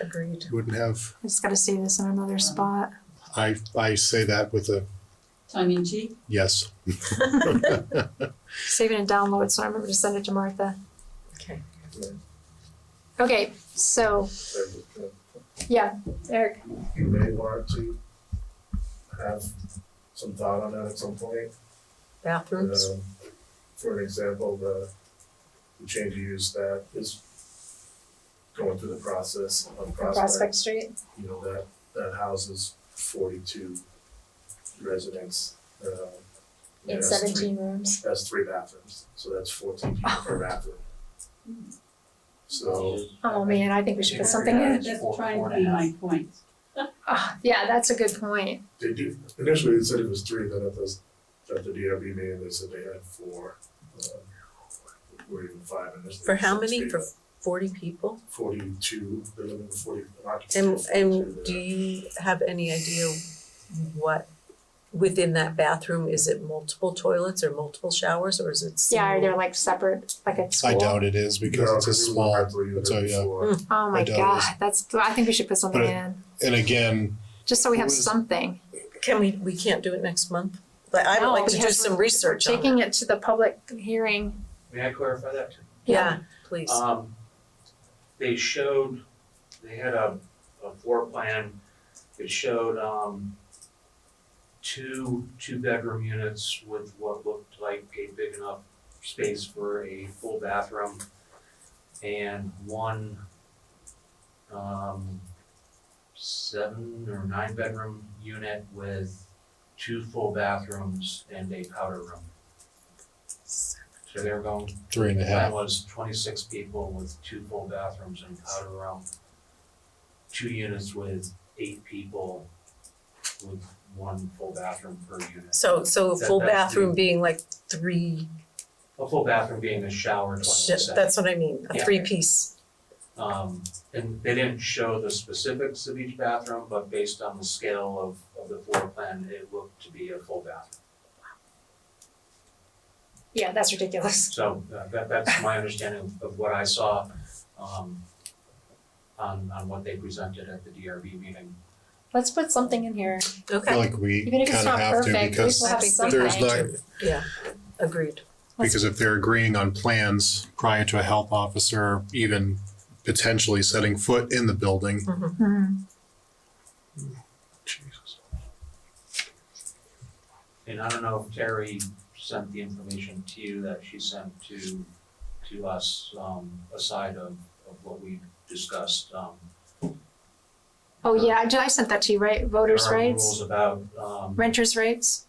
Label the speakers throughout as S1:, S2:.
S1: Agreed.
S2: wouldn't have,
S3: I just gotta see this in another spot.
S2: I, I say that with a
S4: tongue in cheek.
S2: yes.
S3: Save it and download, so I remember to send it to Martha.
S1: Okay.
S3: Okay, so, yeah, Eric,
S5: You may want to have some thought on that at some point.
S1: Bathrooms.
S5: Um, For an example, the, the change of use that is going through the process of prospect,
S3: Prospect Street.
S5: you know, that, that houses forty-two residents. um, and
S3: In
S5: has three-
S3: seventeen Oh. rooms.
S5: Has three bathrooms, so that's fourteen people per bathroom.
S3: Mm-hmm.
S5: So.
S3: Oh, man, I think we should put something in.
S4: That's trying to be my point.
S3: Ah, yeah, that's a good point.
S5: They do, initially they said it was three, then at the, at the DRB meeting, they said they had four, um, or even five initially.
S1: For how many? For
S5: Sixty,
S1: forty people?
S5: but Forty-two, they're looking for forty, not.
S1: And and do
S5: Two
S1: you have any idea what within that bathroom, is it multiple toilets or multiple showers or is it
S3: Yeah, are
S1: single?
S3: they like separate, like at
S2: I
S3: school?
S2: doubt it is
S5: there.
S2: because it's a
S5: No, 'cause we were
S2: small,
S5: at three,
S2: so,
S5: there
S2: yeah.
S5: before.
S1: Mm.
S3: Oh my
S2: I doubt it
S3: god, that's, I think we should put something
S2: But it-
S3: in,
S2: and again,
S3: just so we have
S2: Who is-
S3: something.
S1: Can we, we can't do it next month? But I would
S3: No,
S1: like to do
S3: because
S1: some
S3: we're-
S1: research on
S3: Taking
S1: it.
S3: it to the public hearing.
S6: May I clarify that?
S1: Yeah, please.
S6: Um, they showed, they had a, a floor plan that showed, um, two, two-bedroom units with what looked like a big enough space for a full bathroom and one, um, seven or nine-bedroom unit with two full bathrooms and a powder room. So they're going
S2: three and a
S6: Plan
S2: half,
S6: was twenty-six people with two full bathrooms and powder room. Two units with eight people with one full bathroom per unit.
S1: So so a
S6: That-
S1: full
S6: that's the-
S1: bathroom being like three,
S6: A full bathroom being a shower, toilet,
S1: sh-
S6: set.
S1: that's what I mean, a
S6: Yeah.
S1: three piece.
S6: Um, and they didn't show the specifics of each bathroom, but based on the scale of, of the floor plan, it looked to be a full bathroom.
S3: Yeah, that's ridiculous.
S6: So uh, that, that's my understanding of- of what I saw, um, on, on what they presented at the DRB meeting.
S3: Let's put something in here,
S2: I feel
S1: Okay,
S2: like we
S3: even if it's
S2: kind of
S3: not
S2: have to
S3: perfect, at
S2: because
S3: least we'll have
S1: I think
S3: something.
S2: there's not,
S1: agreed.
S3: Let's-
S2: because if they're agreeing on plans prior to a health officer even potentially setting foot in the building. Hmm.
S3: Mhm.
S2: Jesus.
S6: And I don't know if Terry sent the information to you that she sent to, to us, um, aside of, of what we discussed, um.
S3: Oh, yeah, I ju- I sent that to you, right? Voters'
S6: There are
S3: rights,
S6: rules about, um,
S3: renters' rights?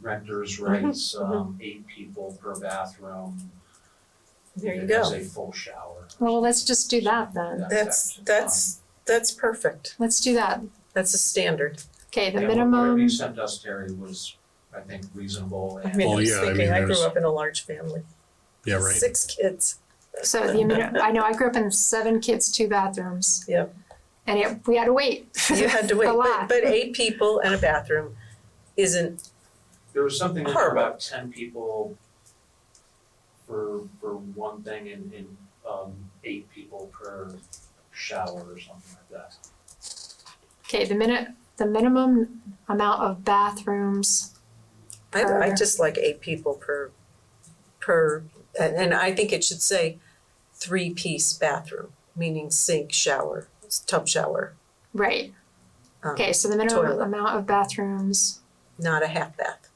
S6: renters' rights, um, eight people per bathroom.
S1: There you
S6: and It has
S1: go.
S6: a full shower.
S3: Well, let's just do that then.
S6: That-
S1: That's
S6: um,
S1: that's that's perfect.
S3: Let's do that.
S1: That's a standard.
S3: Okay, the
S6: yeah, what- Whatever
S3: minimum,
S6: you sent us, Terry, was, I think, reasonable
S1: I
S6: and.
S1: mean,
S2: Well,
S1: I was
S2: yeah, I
S1: thinking,
S2: mean,
S1: I grew
S2: there's-
S1: up in a large family,
S2: Yeah, right.
S1: six kids.
S3: so the, minimum. I know, I grew up in seven kids, two bathrooms.
S1: Yep.
S3: And it, we had to wait.
S1: You had to wait,
S3: A
S1: but
S3: lot.
S1: but eight people and a bathroom isn't,
S6: There was something in there
S1: Horrible.
S6: about ten people for, for one thing and, and, um, eight people per shower or something like that.
S3: Okay, the minute, the minimum amount of bathrooms,
S1: I I
S3: Per-
S1: just like eight people per per, and and I think it should say three piece bathroom, meaning sink, shower, tub shower.
S3: right?
S1: um,
S3: Okay, so the minimum
S1: Toilet.
S3: amount of bathrooms,
S1: Not a half bath.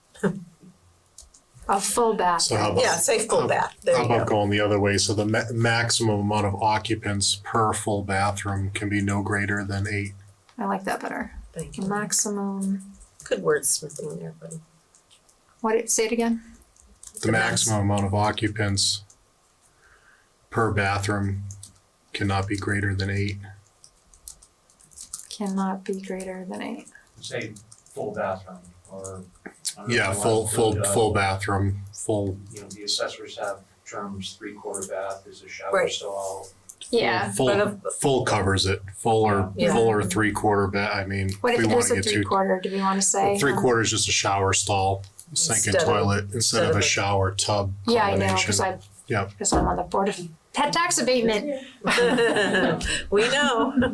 S3: a full
S2: So
S3: bathroom.
S2: how about
S1: Yeah, say full
S2: Um,
S1: bath, there
S2: How
S1: you
S2: about
S1: go.
S2: going the other way? So the ma- maximum amount of occupants per full bathroom can be no greater than eight.
S3: I like that better.
S1: Thank you.
S3: Maximum,
S1: Good wordsmithing there, buddy.
S3: what, it- say it again?
S2: The maximum amount of occupants per bathroom cannot be greater than eight.
S3: Cannot be greater than eight.
S6: Say full bathroom or. I don't know
S2: Yeah,
S6: if you
S2: full,
S6: want to
S2: full,
S6: include, uh,
S2: full bathroom, full,
S6: You know, the assessors have terms, three quarter bath is a shower
S1: Right.
S6: stall.
S3: Yeah,
S1: but
S2: full,
S1: of-
S2: full covers it. Full or,
S1: Yeah.
S2: full or three quarter ba- I mean,
S3: what
S2: we
S3: if
S2: wanna
S3: there's a
S2: get
S3: three
S2: to.
S3: quarter, do we wanna say?
S2: Three
S3: um,
S2: quarters just a shower stall, sink and
S1: Instead of-
S2: toilet, instead of
S1: instead of
S2: a
S1: a-
S2: shower tub
S3: Yeah, I
S2: combination.
S3: know, cause I,
S2: Yep.
S3: cause I'm on the board of pet tax abatement.
S1: We know.